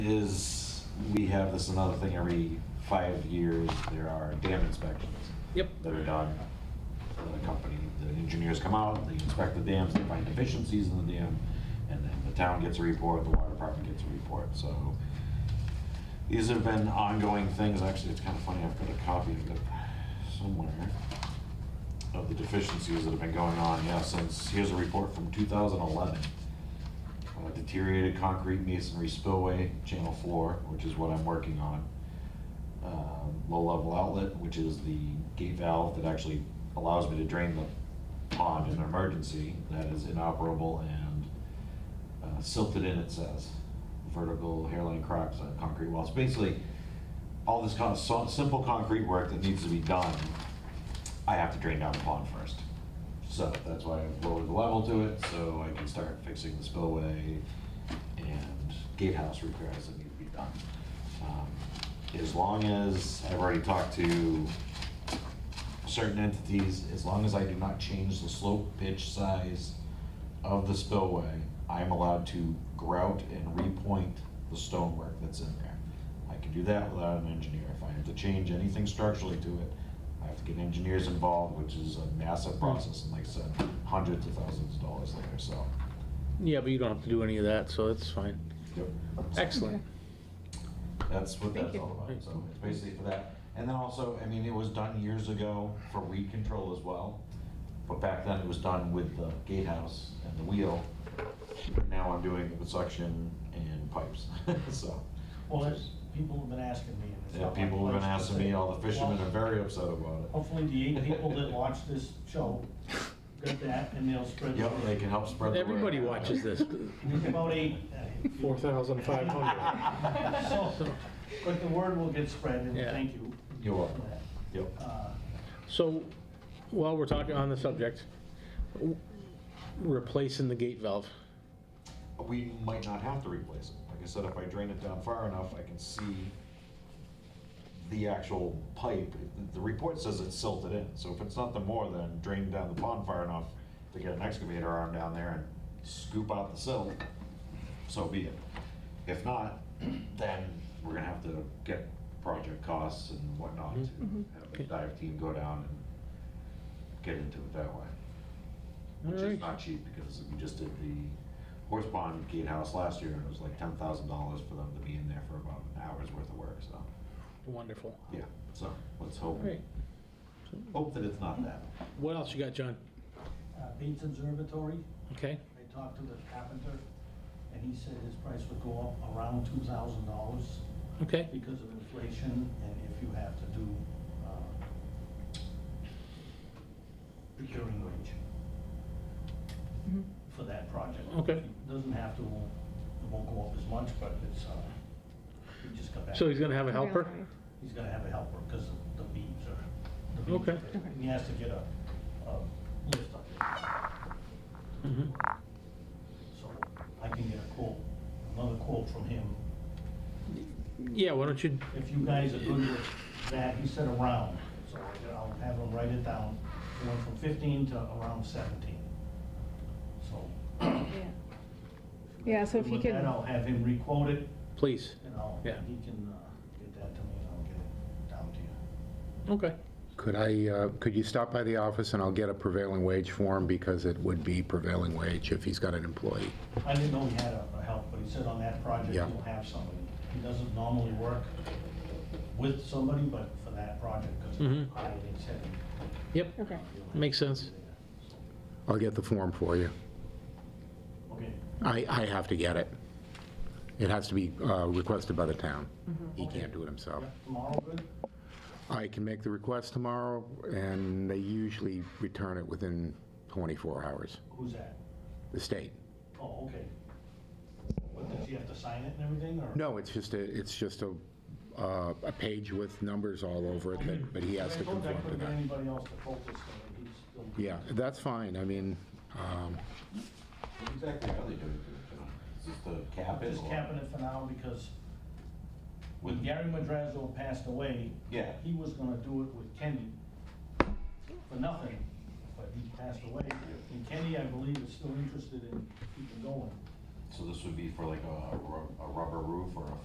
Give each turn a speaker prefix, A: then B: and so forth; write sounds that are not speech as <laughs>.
A: is, we have this another thing every five years, there are dam inspections
B: Yep.
A: that are done. The company, the engineers come out, they inspect the dams, they find deficiencies in the dam, and then the town gets a report, the water department gets a report, so. These have been ongoing things, actually, it's kind of funny, I've got a copy of it somewhere, of the deficiencies that have been going on, yeah, since, here's a report from 2011 uh, deteriorated concrete masonry spillway channel floor, which is what I'm working on. Um, Low-level outlet, which is the gate valve that actually allows me to drain the pond in an emergency, that is inoperable and uh, silted in, it says. Vertical hairline cracks on concrete walls. Basically, all this kind of so- simple concrete work that needs to be done, I have to drain down the pond first. So that's why I've lowered the level to it, so I can start fixing the spillway and gatehouse repairs that need to be done. Um, As long as, I've already talked to certain entities, as long as I do not change the slope, pitch, size of the spillway, I'm allowed to grout and repoint the stonework that's in there. I can do that without an engineer. If I have to change anything structurally to it, I have to get engineers involved, which is a massive process, and like I said, hundreds of thousands of dollars later, so.
B: Yeah, but you don't have to do any of that, so that's fine.
A: yep.
B: Excellent.
A: That's what
C: Thank
A: that's
C: you.
A: all about, so it's basically for that. And then also, I mean, it was done years ago for weed control as well, but back then it was done with the gatehouse and the wheel. But Now I'm doing it with suction and pipes, <laughs> so.
D: Well, there's, people have been asking me. and it's
A: Yeah,
D: not my
A: people have been
D: place to
A: asking
D: say.
A: me, all the fishermen
D: Well,
A: are very upset about it.
D: Hopefully the eight people that watch this show got that and they'll spread. the
A: Yep,
D: word.
A: they can help spread the word.
B: Everybody watches this.
D: There's About eight.
E: Four thousand five hundred.
D: So, But the word will get spread and
B: Yeah.
D: thank you.
A: You're
D: for
A: welcome,
D: that.
A: yep.
D: Uh,
B: So, while we're talking on the subject, w- replacing the gate valve.
A: we might not have to replace it. Like I said, if I drain it down far enough, I can see the actual pipe. The- The report says it's silted in, so if it's nothing more than draining down the pond far enough to get an excavator arm down there and scoop out the silt, so be it. If not, <clears throat> then we're gonna have to get project costs and whatnot to have a dive team go down and get into it that way which is
B: Alright.
A: not cheap because we just did the horse pond gatehouse last year and it was like ten thousand dollars for them to be in there for about an hour's worth of work, so,
B: Wonderful.
A: yeah, so let's hope,
B: Alright,
A: hope that it's not that.
B: what else you got, John?
D: uh, Bates Observatory,
B: Okay,
D: I talked to the carpenter and he said his price would go up around two thousand dollars
B: okay,
D: because of inflation and if you have to do, uh, procuring wage. for that project.
B: Okay.
D: It Doesn't have to, it won't go up as much, but it's, uh, we just got back.
B: so he's gonna have a helper?
D: He's gonna have a helper, because the beams are, the beams
B: Okay.
D: are- and He has to get a, a lift up there.
B: Mhm.
D: So I can get a quote, another quote from him.
B: Yeah, why don't you,
D: If you guys are good with that, he said around, so I'll have him write it down. It went from fifteen to around seventeen. So.
C: Yeah, so if you
D: With that,
C: can,
D: I'll have him requote it,
B: please?
D: and I'll, he
B: Yeah.
D: can uh, get that to me, and I'll get it down to you.
B: Okay,
F: Could I, uh, could you stop by the office and I'll get a prevailing wage for him because it would be prevailing wage if he's got an employee?
D: I didn't know he had a a help, but he said on that project,
F: Yeah.
D: he'll have somebody. He doesn't normally work with somebody, but for that project, because
B: Mhm.
D: I didn't say.
B: yep,
C: okay,
B: makes sense.
F: I'll get the form for you.
D: Okay,
F: I, I have to get it. It has to be uh, requested by the town. He can't do it himself.
D: yeah, tomorrow, good?
F: I can make the request tomorrow, and they usually return it within 24 hours,
D: Who's that?
F: the state.
D: Oh, okay. What, does he have to sign it and everything, or?
F: No, it's just a, it's just a, uh, a page with numbers all over it, but- but he has to
D: I told you I
F: conform
D: couldn't
F: to
D: get
F: that.
D: anybody else to quote this, so he's still.
F: Yeah, that's fine, I mean, um,
A: What exactly are they doing to it, John? Is this the cap it
D: Just
A: or-
D: capping it for now, because when
A: With-
D: Gary Madrazo passed away,
A: Yeah,
D: he was gonna do it with Kenny for nothing, but he passed away. And Kenny, I believe, is still interested in keeping going.
A: so this would be for like a, ru- a rubber roof or a